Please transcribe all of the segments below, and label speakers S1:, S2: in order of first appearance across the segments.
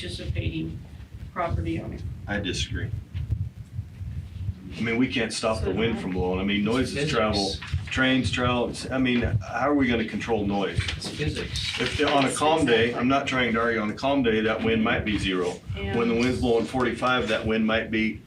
S1: non-participating property owner.
S2: I disagree. I mean, we can't stop the wind from blowing. I mean, noises
S3: Physics.
S2: travel, trains travel. It's- I mean, how are we gonna control noise?
S3: It's physics.
S2: If, on a calm day, I'm not trying to argue, on a calm day, that wind might be zero. When the wind's blowing forty-five, that wind might be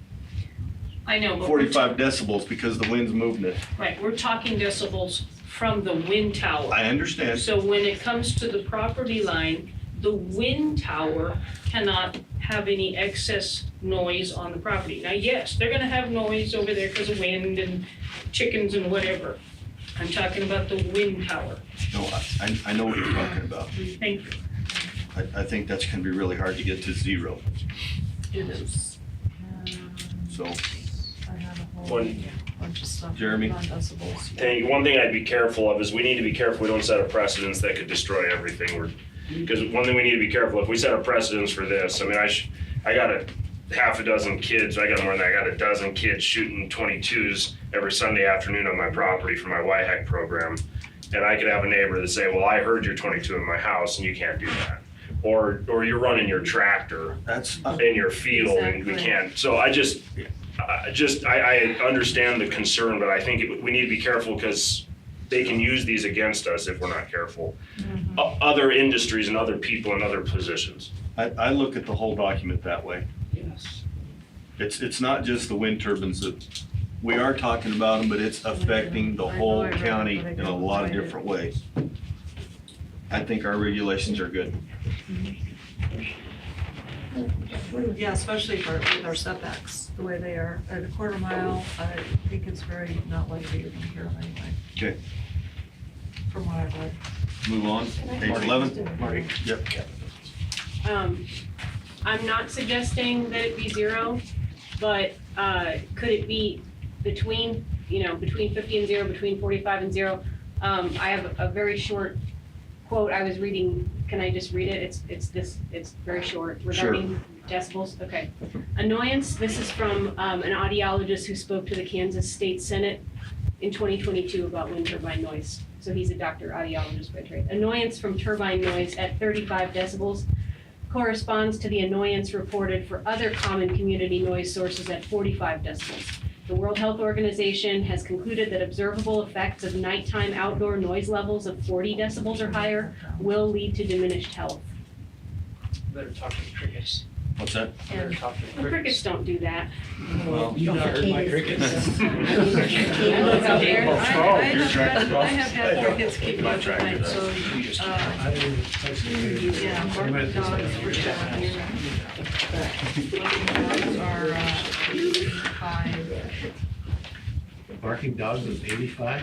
S1: I know, but we're,
S2: forty-five decibels because the wind's moving it.
S1: right, we're talking decibels from the wind tower.
S2: I understand.
S1: So when it comes to the property line, the wind tower cannot have any excess noise on the property. Now, yes, they're gonna have noise over there because of wind and chickens and whatever. I'm talking about the wind tower.
S2: No, I- I, I know what you're talking about.
S1: Thank you.
S2: I, I think that's gonna be really hard to get to zero,
S4: It is.
S2: so.
S4: I have a whole
S5: One
S4: bunch of stuff.
S2: Jeremy?
S4: On decibels.
S5: thing, one thing I'd be careful of is we need to be careful we don't set a precedence that could destroy everything. We're because one thing we need to be careful if we set a precedence for this. I mean, I sh- I got a half a dozen kids. I got more than that. I got a dozen kids shooting 22s every Sunday afternoon on my property for my YHEC program, and I could have a neighbor that say, "Well, I heard your 22 in my house, and you can't do that," or or you're running your tractor
S2: That's, uh,
S5: in your field and we
S4: Exactly.
S5: can't. So I just, I just, I, I understand the concern, but I think it- we need to be careful because they can use these against us if we're not careful. O- Other industries and other people in other positions.
S2: I, I look at the whole document that way.
S1: Yes.
S2: It's, it's not just the wind turbines that, we are talking about them, but it's affecting the
S4: I know, I
S2: whole
S4: read it,
S2: county
S4: but I
S2: in a
S4: couldn't
S2: lot of
S4: find it.
S2: different ways. I think our regulations are good.
S4: Yeah, especially for, with our setbacks, the way they are, at a quarter mile, I think it's very not likely you're gonna hear them anyway.
S2: Okay.
S4: From what I've read.
S2: Move on, page eleven.
S4: Marty.
S2: Yep.
S6: Um, I'm not suggesting that it be zero, but, uh, could it be between, you know, between fifty and zero, between forty-five and zero? Um, I have a very short quote I was reading, can I just read it? It's, it's this, it's very short regarding decibels, okay. Annoyance, this is from, um, an audiologist who spoke to the Kansas State Senate in twenty twenty-two about wind turbine noise. So he's a doctor audiologist by trade. Annoyance from turbine noise at thirty-five decibels corresponds to the annoyance reported for other common community noise sources at 45 decibels. The World Health Organization has concluded that observable effects of nighttime outdoor noise levels of 40 decibels or higher will lead to diminished health.
S7: Better talk to the crickets.
S2: What's that?
S7: Better talk to the
S6: The crickets
S7: crickets.
S6: don't do that.
S2: Well,
S3: You've not heard my crickets.
S6: Look out there.
S4: I- I
S2: you're
S4: have
S2: trying to
S4: had- I have had crickets keep me
S2: My
S4: up at
S2: tractor
S4: night,
S2: does.
S4: so,
S7: You just-
S4: uh,
S7: I didn't even touch the-
S4: yeah, barking dogs, rich dogs, dogs are, uh, five,
S3: Barking dogs was eighty-five?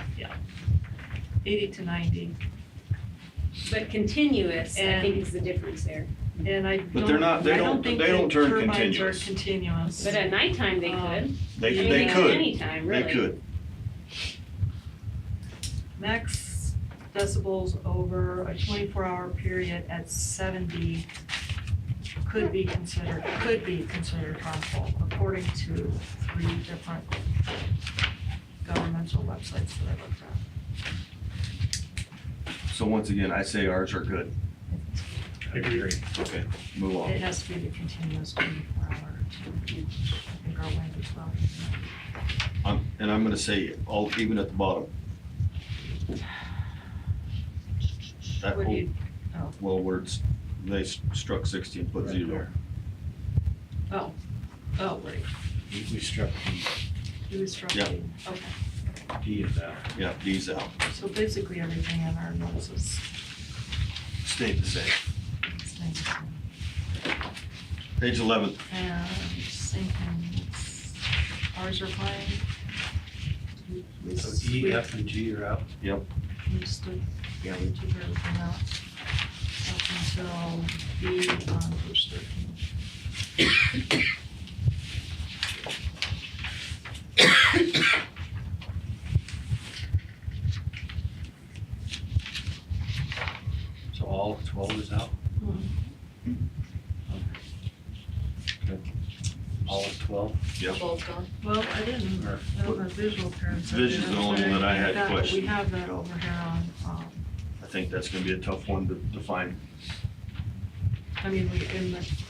S4: eighty to ninety.
S6: But continuous, I think is the difference there.
S4: And I
S2: But they're not-
S4: don't,
S2: they
S4: I
S2: don't-
S4: don't think
S2: they don't
S4: that
S2: turn
S4: turbines are
S2: continuous.
S4: continuous. Um,
S6: But at nighttime, they
S1: Uh,
S6: could.
S2: They,
S6: I mean,
S2: they could,
S6: Anytime,
S2: they
S6: really.
S2: could.
S4: Max decibels over a twenty-four hour period at seventy could be considered, could be considered harmful according to three different governmental websites that I looked at.
S2: So once again, I say ours are good.
S3: I agree.
S2: Okay, move
S4: It
S2: on.
S4: has to be the continuous twenty-four hour. too. I think our language well.
S2: I'm- And I'm gonna say, all, even at the bottom. That
S4: Would
S2: whole,
S4: you- oh.
S2: well, words, they s- struck sixty and put
S3: Right
S2: zero.
S3: there.
S4: Oh, wait,
S3: We we struck
S4: you was struck.
S2: Yeah.
S4: Okay,
S3: the D of that.
S2: Yeah, D's out,
S4: so basically everything in our notes is.
S2: stayed the same.
S4: is negative.
S2: Page eleven,
S4: And same thing, it's- ours are fine. We- we s-
S3: So E,
S4: we-
S3: F, and G are out.
S4: We stood, yeah, we took everything out up until B on page thirteen.
S3: So all of twelve is out?
S4: Mhm.
S3: Okay. All of twelve?
S4: Well, I didn't,
S3: Or-
S4: I don't have visual appearance. I
S2: Vision's
S4: did
S2: the only one that I had
S4: that, but
S2: questioned.
S4: We have that over here on, um,
S2: I think that's gonna be a tough one to define.
S1: I mean, we, in the